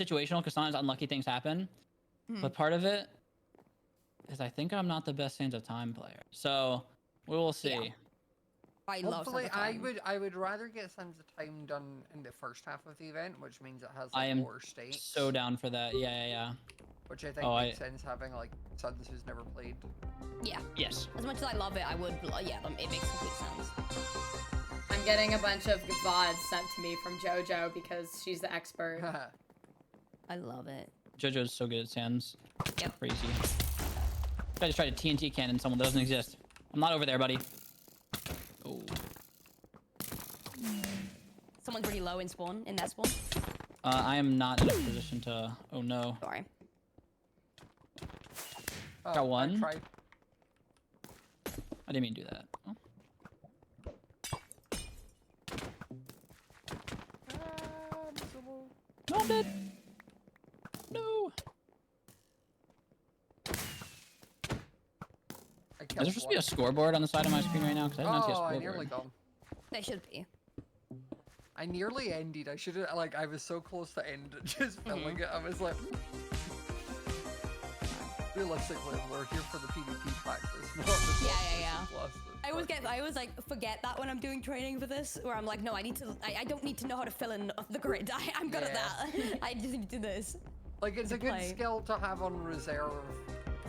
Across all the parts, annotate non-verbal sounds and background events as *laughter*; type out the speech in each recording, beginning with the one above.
situational because sometimes unlucky things happen. Hmm. Mhm. But part of it is I think I'm not the best Sands of Time player. So we will see. Yeah. I love Hopefully, Sands of I Time. would I would rather get Sands of Time done in the first half of the event, which means it has I like am more states. So down for that. Yeah, yeah, yeah. which I think oh, makes sense having like Sons who's never played. *laughs* Yeah, Yes. as much as I love it, I would. like, Yeah, um, it makes complete sense. I'm getting a bunch of VODs sent to me from JoJo because she's *laughs* the Oh, expert. I love it. JoJo's so good at Sands. Yep. Crazy. I just tried to TNT cannon someone that doesn't exist. I'm not over there, buddy. Oh. Someone's really low in spawn, in their spawn. Uh, I am not in a position to. Oh no. Sorry. Oh, I Got one. tried- I didn't mean to do that. Oh. Ah, miserable. No, I'm dead. No. I Is there supposed to be a scoreboard on the side of my screen right now? Because I did not see a Oh, I scoreboard. nearly gone. They should be. I nearly ended. I should have like I was so close to end *laughs* Mm-hmm. just filming it. I was like *laughs* Realistically, we're here for the PvP practice, not *laughs* the Yeah, boss yeah, yeah. versus boss, but I always fuck get, I always like forget that when I'm doing training for this, where I'm like, no, I need to, I, I don't need to know how to fill in the grid. *laughs* I, I'm good at Yeah. that. *laughs* I just need to do this. Like it's to a good play. skill to have on reserve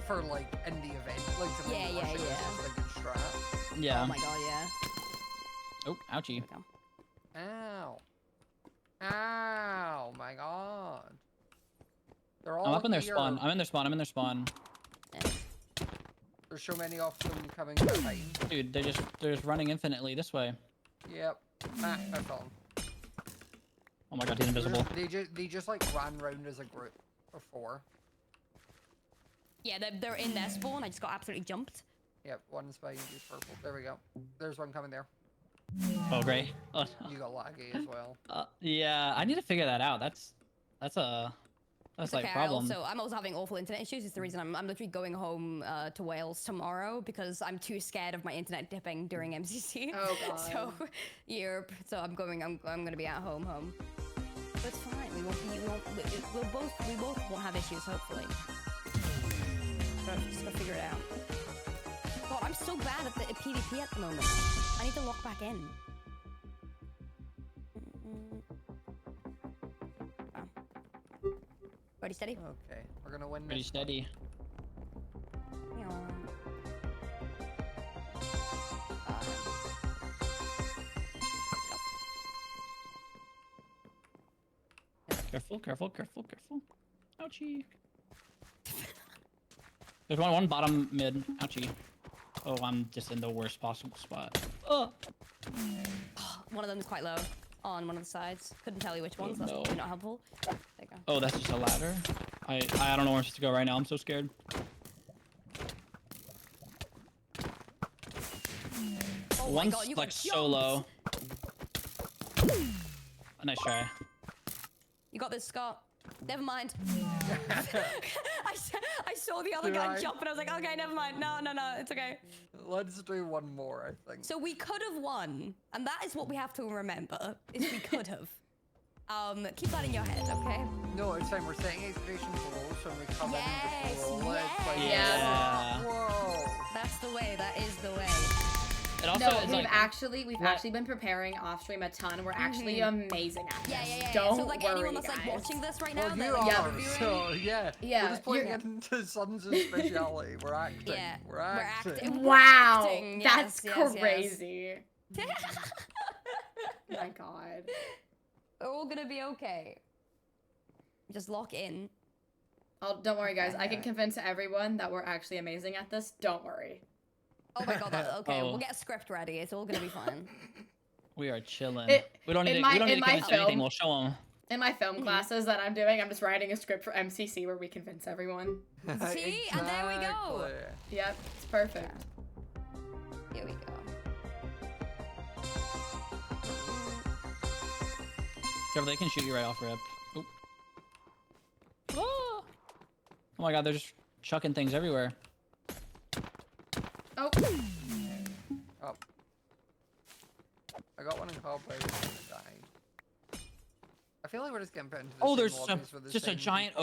for like in the event. Like to Yeah, make yeah, yeah, yeah. yeah. a good strat. Yeah. Oh my god, yeah. Oh, ouchie. Here we go. Ow. Ow my god. They're all I'm up in their here. spawn. I'm in their spawn. I'm in their spawn. There's so many of them coming behind. Dude, they're just they're just running infinitely this way. Yep. Ah, I fell. Oh my god, he's They're invisible. just- They just they just like ran round as a group before. Yeah, they're, they're in their spawn. I just got absolutely jumped. Yep, one's by you purple. There we go. There's one coming there. Oh great. *laughs* Oh, no. You got laggy as *gasps* well. Uh, yeah, I need to figure that out. That's that's a that's It's like okay, I problem. also, I'm also having awful internet issues. It's the reason I'm, I'm literally going home uh, to Wales tomorrow because I'm too scared of my internet dipping during MCC. Oh, *laughs* So, Europe. So I'm going. I'm, I'm going to be at home. Home. But it's fine. We won't be. We won't, we, we- we'll both. We both won't have issues. Hopefully. But I've just got to figure it out. God, I'm so bad at the at PvP at the moment. I need to lock back in. Mm, mm. Wow. Ready, steady. Okay, we're gonna win. Pretty this one. steady. Yeah. Careful, careful, careful, careful. *laughs* Ouchie. There's one one bottom mid. Ouchie. Oh, I'm just in the worst possible spot. Oh, One of them's quite low on one of the sides. Couldn't tell you which ones. That's Oh, no. probably not helpful. There you go. oh, that's just a ladder. I I don't know where I'm supposed to go right now. I'm so scared. Oh my One's God, you got like so jumped. low. A nice try. You got this, Scott. Never mind. *laughs* I, s- I saw the other You're guy right. jump and I was like, okay, never mind. No, no, no, it's okay. Let's do one more. I think. So we could have won, and that is what we have to remember: is we *laughs* could have. Um, keep that in your head, okay? No, it's fine. We're setting expectations low, so when we come in and Yes, just roll it. It's like, yes. Yeah. Whoa. That's the way. That is the way. It also No, is we've like actually we've Yeah. actually been preparing off stream a ton. We're actually amazing at this. Yeah, yeah, yeah. Don't so like worry, anyone that's like guys. watching this right now, Well, they're you like, yeah, are. reviewing. So yeah. Yeah, We're just playing you're- into Sons' speciality. *laughs* We're acting. Yeah, We're acting. *laughs* acting. Wow, acting, that's yes, yes, yes. crazy. *laughs* Oh my *laughs* god. We're all gonna be okay. Just lock in. Oh, don't worry, guys. I can Okay. convince everyone that we're actually amazing at this. Don't worry. Oh my god. *laughs* that- okay, Oh. we'll get a script ready. It's all gonna be *laughs* fine. we are chilling. It- we don't need in to, my- we don't in need to my convince anything. film- We'll show them. In my film Mm-hmm. classes that I'm doing, I'm just writing a script for MCC where we convince everyone. See? And there we go. Exactly. Yep, it's perfect. Here we go. Careful, they can shoot you right off rip. Oop. Oh Ah. Oh my god, they're just chucking things everywhere. Oh, Oh. I got one in cobweb and I died. I feel like we're just getting put into the Oh, same there's lobbies some, with the just a same giant